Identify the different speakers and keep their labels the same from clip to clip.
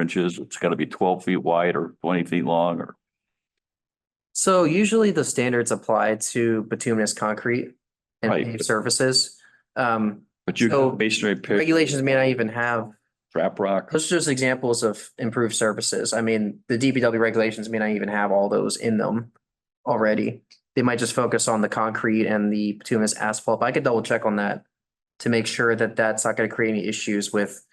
Speaker 1: inches, it's gotta be twelve feet wide or twenty feet long or,
Speaker 2: So usually the standards apply to bituminous concrete and
Speaker 1: Right.
Speaker 2: paved surfaces. Um,
Speaker 1: but you
Speaker 2: So,
Speaker 1: can masonry pit,
Speaker 2: regulations may not even have,
Speaker 1: trap rock.
Speaker 2: those are just examples of improved surfaces. I mean, the DPW regulations may not even have all those in them already. They might just focus on the concrete and the bituminous asphalt. But I could double check on that to make sure that that's not going to create any issues with,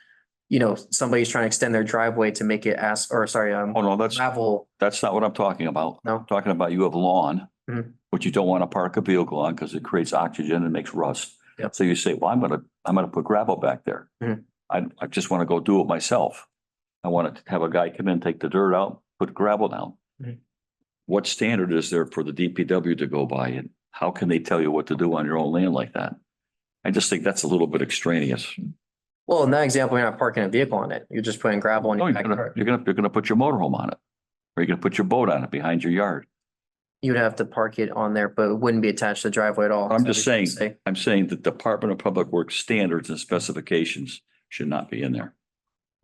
Speaker 2: you know, somebody's trying to extend their driveway to make it as, or sorry, um,
Speaker 1: Oh, no, that's,
Speaker 2: gravel.
Speaker 1: that's not what I'm talking about.
Speaker 2: No.
Speaker 1: I'm Talking about you have lawn,
Speaker 2: Mhm.
Speaker 1: which you don't want to park a vehicle on because it creates oxygen and makes rust.
Speaker 2: Yep.
Speaker 1: So you say, well, I'm gonna, I'm gonna put gravel back there.
Speaker 2: Mhm.
Speaker 1: I, I just want to go do it myself. I want to have a guy come in, take the dirt out, put gravel down.
Speaker 2: Mhm.
Speaker 1: What standard is there for the DPW to go by and how can they tell you what to do on your own land like that? I just think that's a little bit extraneous.
Speaker 2: Well, in that example, you're not parking a vehicle on it. You're just putting gravel on
Speaker 1: No,
Speaker 2: your
Speaker 1: Oh, you're gonna,
Speaker 2: backyard.
Speaker 1: you're gonna, you're gonna put your motorhome on it. Or you're gonna put your boat on it behind your yard.
Speaker 2: You'd have to park it on there, but it wouldn't be attached to the driveway at all.
Speaker 1: I'm
Speaker 2: So
Speaker 1: just
Speaker 2: we
Speaker 1: saying-
Speaker 2: can say-
Speaker 1: I'm saying the Department of Public Works standards and specifications should not be in there,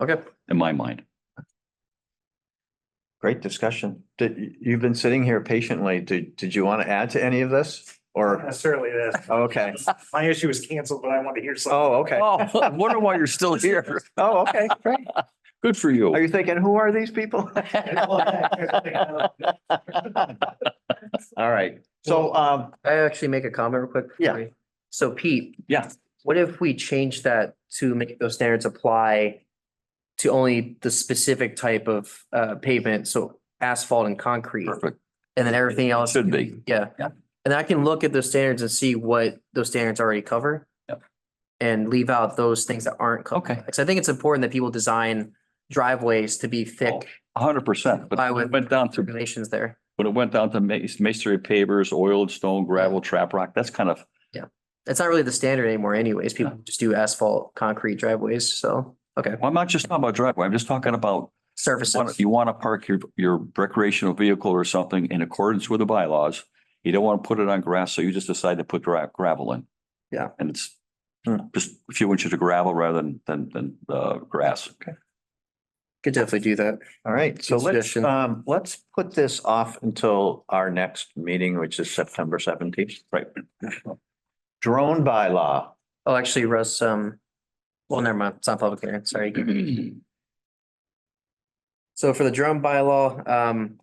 Speaker 2: Okay,
Speaker 1: in my mind.
Speaker 3: Great discussion. Did, you've been sitting here patiently. Did, did you want to add to any of this?
Speaker 4: Not
Speaker 3: Or, oh,
Speaker 4: necessarily this.
Speaker 3: okay.
Speaker 4: My issue was canceled, but I wanted to hear something.
Speaker 3: Oh, okay.
Speaker 1: Oh, I wonder why you're still here.
Speaker 3: Oh, okay, great.
Speaker 1: Good for
Speaker 3: Are
Speaker 1: you.
Speaker 3: you thinking, who are these people? All right. So, um,
Speaker 2: I actually make a comment real quick.
Speaker 3: Yeah.
Speaker 2: Sorry. So Pete,
Speaker 1: Yeah,
Speaker 2: what if we change that to make those standards apply to only the specific type of uh pavement, so asphalt and concrete,
Speaker 1: perfect.
Speaker 2: and then everything else?
Speaker 1: Should be.
Speaker 2: Yeah.
Speaker 1: Yeah.
Speaker 2: And I can look at those standards and see what those standards already cover.
Speaker 1: Yep.
Speaker 2: And leave out those things that aren't covered.
Speaker 1: Okay,
Speaker 2: Because I think it's important that people design driveways to be
Speaker 1: Oh,
Speaker 2: thick
Speaker 1: a hundred percent. But
Speaker 2: I
Speaker 1: when
Speaker 2: would-
Speaker 1: it went down to,
Speaker 2: regulations there.
Speaker 1: when it went down to ma- masonry pavers, oiled stone, gravel, trap rock, that's kind of,
Speaker 2: It's not really the standard anymore anyways. People just do asphalt, concrete driveways, so, okay,
Speaker 1: I'm not just talking about driveway. I'm just talking about wanna-
Speaker 2: surfaces.
Speaker 1: you want to park your, your recreational vehicle or something in accordance with the bylaws. You don't want to put it on grass, so you just decide to put gra- gravel in.
Speaker 2: Yeah.
Speaker 1: And it's
Speaker 3: Hmm.
Speaker 1: just a few inches of gravel rather than, than, than, uh, grass. Okay.
Speaker 2: Could definitely do that.
Speaker 3: all right, so let's,
Speaker 2: Discussion.
Speaker 3: um, let's put this off until our next meeting, which is September seventeenth.
Speaker 1: Right.
Speaker 3: Drone bylaw.
Speaker 2: Oh, actually, Russ, um, well, never mind, it's not public hearing, sorry. So for the drone bylaw, um,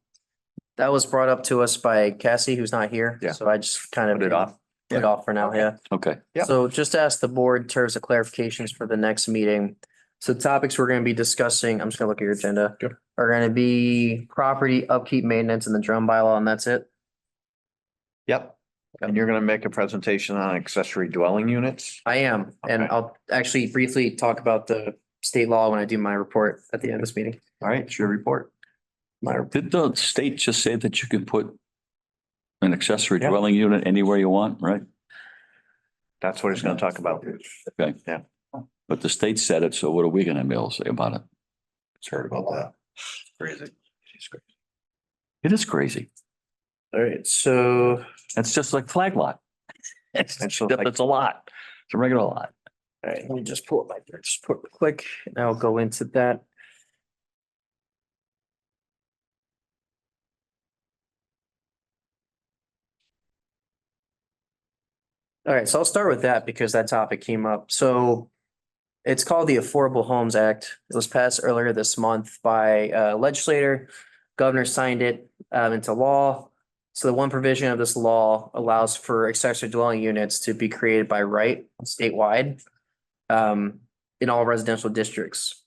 Speaker 2: that was brought up to us by Cassie, who's not here.
Speaker 3: Yeah.
Speaker 2: So I just kind of.
Speaker 3: Put it off.
Speaker 2: Put it off for now, yeah.
Speaker 1: Okay.
Speaker 3: Yep.
Speaker 2: So just to ask the board in terms of clarifications for the next meeting. So topics we're gonna be discussing, I'm just gonna look at your agenda.
Speaker 3: Sure.
Speaker 2: Are gonna be property upkeep, maintenance and the drum bylaw and that's it.
Speaker 3: Yep. And you're gonna make a presentation on accessory dwelling units?
Speaker 2: I am, and
Speaker 3: Okay.
Speaker 2: I'll actually briefly talk about the state law when I do my report at the end of this meeting.
Speaker 3: All right, it's your report.
Speaker 2: My,
Speaker 1: Did the state just say that you can put an accessory
Speaker 3: Yeah.
Speaker 1: dwelling unit anywhere you want, right?
Speaker 3: That's what he's gonna talk about.
Speaker 1: Okay.
Speaker 3: Yeah.
Speaker 1: But the state said it, so what are we gonna be able to say about it?
Speaker 3: Heard about that. Crazy.
Speaker 1: It is crazy.
Speaker 2: all right, so
Speaker 1: It's just like flag lot. It's,
Speaker 3: It's
Speaker 1: except
Speaker 3: like-
Speaker 1: it's a lot. It's a regular lot.
Speaker 2: All right, let me just pull up my dirt support real quick, and I'll go into that. All right, so I'll start with that because that topic came up. So it's called the Affordable Homes Act. It was passed earlier this month by uh, legislator. Governor signed it um, into law. So the one provision of this law allows for accessory dwelling units to be created by right statewide um, in all residential districts.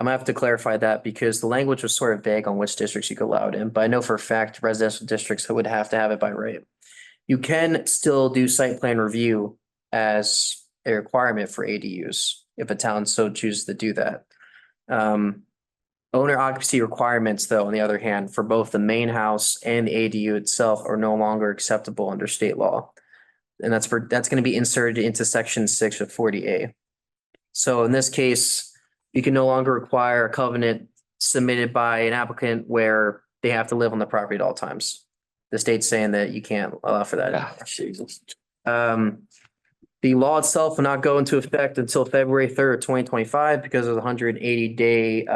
Speaker 2: I'm gonna have to clarify that because the language was sort of vague on which districts you could allow it in, but I know for a fact residential districts would have to have it by right. You can still do site plan review as a requirement for ADUs if a town so chooses to do that. Um, owner occupancy requirements, though, on the other hand, for both the main house and the ADU itself are no longer acceptable under state law. And that's for, that's gonna be inserted into section six of forty A. So in this case, you can no longer require a covenant submitted by an applicant where they have to live on the property at all times. The state's saying that you can't allow for that.
Speaker 1: Ah, Jesus.
Speaker 2: Um, the law itself will not go into effect until February third, twenty twenty-five because of the hundred and eighty day, uh,